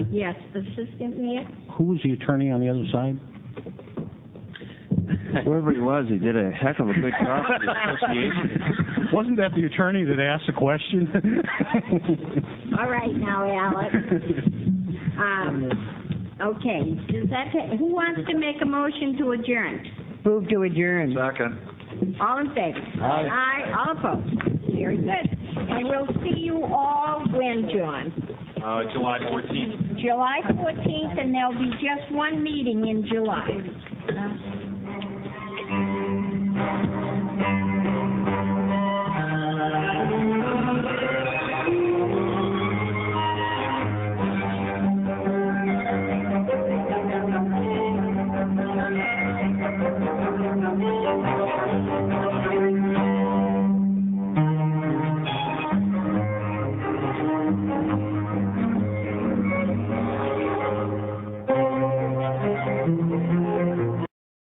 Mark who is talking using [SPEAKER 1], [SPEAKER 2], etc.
[SPEAKER 1] Yes, the assistant mayor?
[SPEAKER 2] Who was the attorney on the other side?
[SPEAKER 3] Whoever he was, he did a heck of a good job for the association.
[SPEAKER 2] Wasn't that the attorney that asked the question?
[SPEAKER 1] All right now, Alex. Um, okay, does that, ta- who wants to make a motion to adjourn?
[SPEAKER 4] Move to adjourn.
[SPEAKER 3] Second.
[SPEAKER 1] All in favor?
[SPEAKER 2] Aye.
[SPEAKER 1] Aye, all opposed? Very good. And we'll see you all when, John?
[SPEAKER 5] Uh, July 14th.
[SPEAKER 1] July fourteenth, and there'll be just one meeting in July.